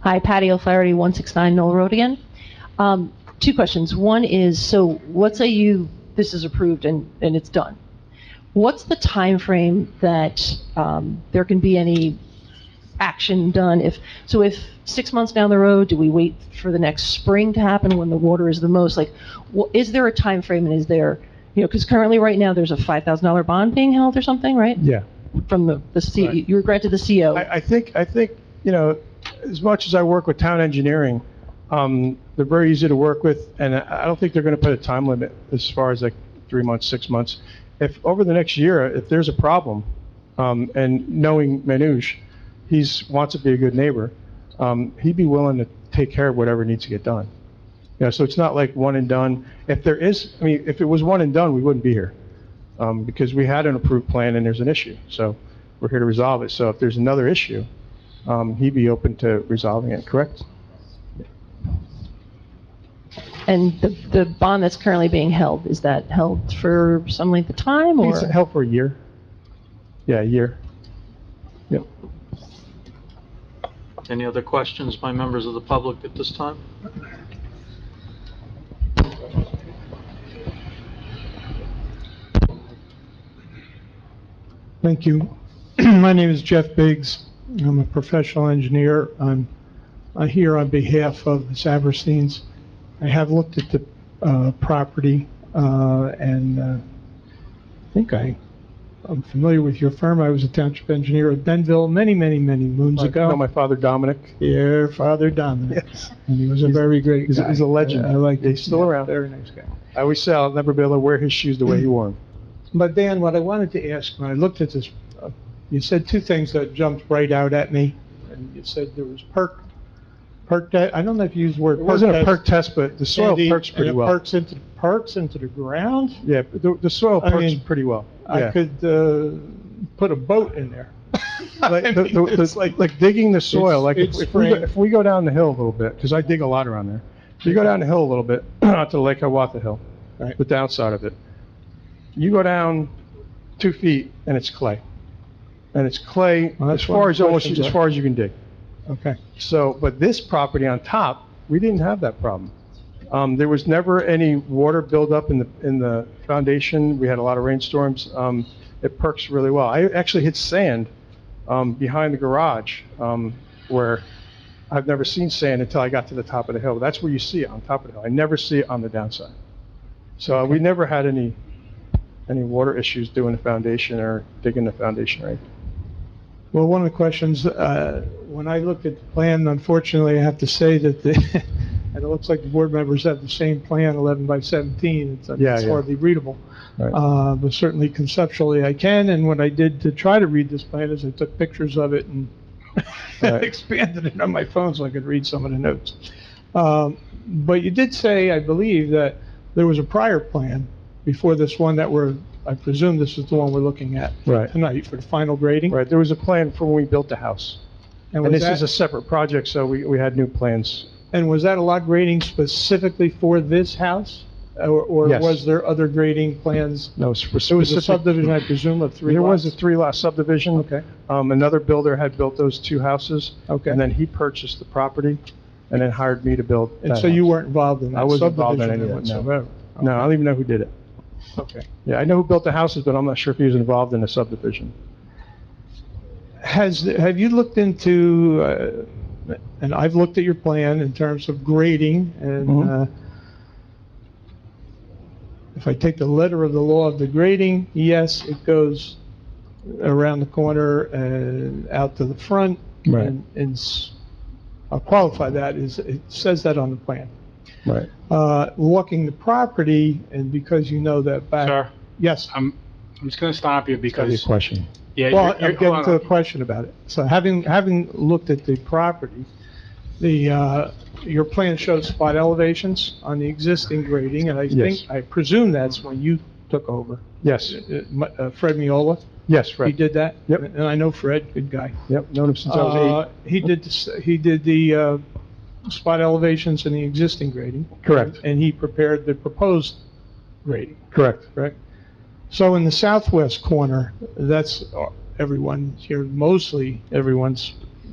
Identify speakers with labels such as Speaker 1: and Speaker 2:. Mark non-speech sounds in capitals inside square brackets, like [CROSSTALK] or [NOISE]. Speaker 1: Hi, Patty O'Flaherty, 169 Knoll Road again. Um, Two questions. One is, so let's say you, this is approved and, and it's done. What's the time frame that um, there can be any action done if, so if six months down the road, do we wait for the next spring to happen when the water is the most? Like, wha- is there a time frame? and is there, you know, because currently, right now, there's a $5,000 bond being held or something, right?
Speaker 2: Yeah.
Speaker 1: From the, the C,
Speaker 2: Right.
Speaker 1: you were granted the CO.
Speaker 2: I, I think, I think, you know, as much as I work with town engineering, um, they're very easy to work with, and I I don't think they're gonna put a time limit as far as like three months, six months. If, over the next year, if there's a problem, um, and knowing Manoj, he's, wants to be a good neighbor, um, he'd be willing to take care of whatever needs to get done. You know, so it's not like one and done. If there is, I mean, if it was one and done, we wouldn't be here. um, because we had an approved plan and there's an issue. So we're here to resolve it. So if there's another issue, um, he'd be open to resolving it, correct?
Speaker 1: And the, the bond that's currently being held, is that held for some length of time
Speaker 2: I
Speaker 1: or?
Speaker 2: think It's held for a year. Yeah, a year. Yep.
Speaker 3: Any other questions by members of the public at this time?
Speaker 4: Thank you. [CLEARS THROAT] My name is Jeff Biggs. I'm a professional engineer. I'm uh, here on behalf of the Sabersteins. I have looked at the uh, property, uh, and uh, I think I, I'm familiar with your firm. I was a township engineer at Benville many, many, many moons
Speaker 2: I know
Speaker 4: ago.
Speaker 2: my father Dominic.
Speaker 4: Your father Dominic,
Speaker 2: Yes.
Speaker 4: and he was a
Speaker 2: He's-
Speaker 4: very great
Speaker 2: he's-
Speaker 4: guy.
Speaker 2: he's a legend.
Speaker 4: I like.
Speaker 2: He's still around.
Speaker 4: Very nice guy.
Speaker 2: I always say I'll never be able to wear his shoes the way he wore
Speaker 4: [CLEARS THROAT]
Speaker 2: them.
Speaker 4: But Dan, what I wanted to ask, when I looked at this, uh, you said two things that jumped right out at me. And you said there was perk, perk, te- I don't know if you used the word.
Speaker 2: It wasn't a
Speaker 4: test,
Speaker 2: perk test, but the soil
Speaker 4: Andy,
Speaker 2: perks
Speaker 4: and
Speaker 2: pretty
Speaker 4: it
Speaker 2: well.
Speaker 4: Perks into, perks into the ground.
Speaker 2: Yeah, but the, the soil
Speaker 4: I
Speaker 2: perks
Speaker 4: mean,
Speaker 2: pretty well.
Speaker 4: I
Speaker 2: Yeah. [LAUGHS]
Speaker 4: could, uh, put a boat in there.
Speaker 2: Like,
Speaker 4: I
Speaker 2: the-
Speaker 4: mean,
Speaker 2: the-
Speaker 4: it's
Speaker 2: the- like digging the soil,
Speaker 4: It's-
Speaker 2: like if
Speaker 4: it's
Speaker 2: if we, go-
Speaker 4: frame.
Speaker 2: if we go down the hill a little bit, because I dig a lot around there. If you go down the hill a little bit, [CLEARS THROAT] onto Lake Hiawatha Hill,
Speaker 4: Right.
Speaker 2: the downside of it, you go down two feet and it's clay. And it's clay
Speaker 4: Well,
Speaker 2: as
Speaker 4: that's one
Speaker 2: far
Speaker 4: of
Speaker 2: as
Speaker 4: the
Speaker 2: almost,
Speaker 4: questions
Speaker 2: as
Speaker 4: I-
Speaker 2: far as you can dig.
Speaker 4: Okay.
Speaker 2: So, but this property on top, we didn't have that problem. Um, there was never any water buildup in the, in the foundation. We had a lot of rainstorms. Um, it perks really well. I actually hit sand, um, behind the garage, um, where I've never seen sand until I got to the top of the hill. That's where you see it, on top of the hill. I never see it on the downside. So uh, we never had any, any water issues doing the foundation or digging the foundation, right?
Speaker 4: Well, one of the questions, uh, when I looked at the plan, unfortunately, I have to say that the, [LAUGHS] and it looks like the board members have the same plan, 11 by 17. It's-
Speaker 2: Yeah,
Speaker 4: It's
Speaker 2: yeah.
Speaker 4: hardly readable.
Speaker 2: Right.
Speaker 4: Uh, But certainly conceptually I can, and what I did to try to read this plan is I took pictures of it and [LAUGHS]
Speaker 2: Right.
Speaker 4: expanded it on my phone so I could read some of the notes. Um, But you did say, I believe, that there was a prior plan before this one that we're, I presume this is the one we're looking at
Speaker 2: Right.
Speaker 4: tonight for the final grading?
Speaker 2: Right, there was a plan for when we built the house. And
Speaker 4: was
Speaker 2: this is
Speaker 4: that-
Speaker 2: a separate project, so we, we had new plans.
Speaker 4: And was that a lot grading specifically for this house? Or, or
Speaker 2: Yes.
Speaker 4: was there other grading plans?
Speaker 2: No,
Speaker 4: It was a
Speaker 2: specific,
Speaker 4: subdivision, I presume, of three
Speaker 2: there was a
Speaker 4: lots?
Speaker 2: three-lot subdivision.
Speaker 4: Okay,
Speaker 2: Um, another builder had built those two houses,
Speaker 4: okay.
Speaker 2: and then he purchased the property and then hired me to build
Speaker 4: And
Speaker 2: that
Speaker 4: so you
Speaker 2: house.
Speaker 4: weren't involved in
Speaker 2: I
Speaker 4: that
Speaker 2: wasn't involved in
Speaker 4: subdivision
Speaker 2: any of that, no.
Speaker 4: whatsoever?
Speaker 2: No, I don't even know who did it.
Speaker 4: Okay.
Speaker 2: Yeah, I know who built the houses, but I'm not sure if he was involved in the subdivision.
Speaker 4: Has, have you looked into, uh, and I've looked at your plan in terms of grading, and
Speaker 2: Mhm.
Speaker 4: uh, if I take the letter of the law of the grading, yes, it goes around the corner and out to the front.
Speaker 2: Right.
Speaker 4: And- And s- I'll qualify that, is, it says that on the plan.
Speaker 2: Right.
Speaker 4: Uh, Walking the property, and because you know that back.
Speaker 5: Sir,
Speaker 4: Yes.
Speaker 5: I'm, I'm just going to stop you because,
Speaker 2: question.
Speaker 5: yeah,
Speaker 4: Well,
Speaker 5: you're,
Speaker 4: I'm
Speaker 5: you're, hold
Speaker 4: getting to the
Speaker 5: on.
Speaker 4: question about it. So having, having looked at the property, the, uh, your plan shows spot elevations on the existing grading, and I
Speaker 2: Yes.
Speaker 4: think, I presume that's when you took over.
Speaker 2: Yes,
Speaker 4: Uh, my- uh, Fred Miola,
Speaker 2: yes,
Speaker 4: he
Speaker 2: Fred.
Speaker 4: did that?
Speaker 2: Yep.
Speaker 4: And I know Fred, good guy.
Speaker 2: Yep, known him since I was
Speaker 4: Uh, He did, this- he did the uh, spot elevations in the existing grading,
Speaker 2: eight. Correct,
Speaker 4: and he prepared the proposed grading.
Speaker 2: correct.
Speaker 4: correct? So in the southwest corner, that's everyone here, uh, mostly everyone's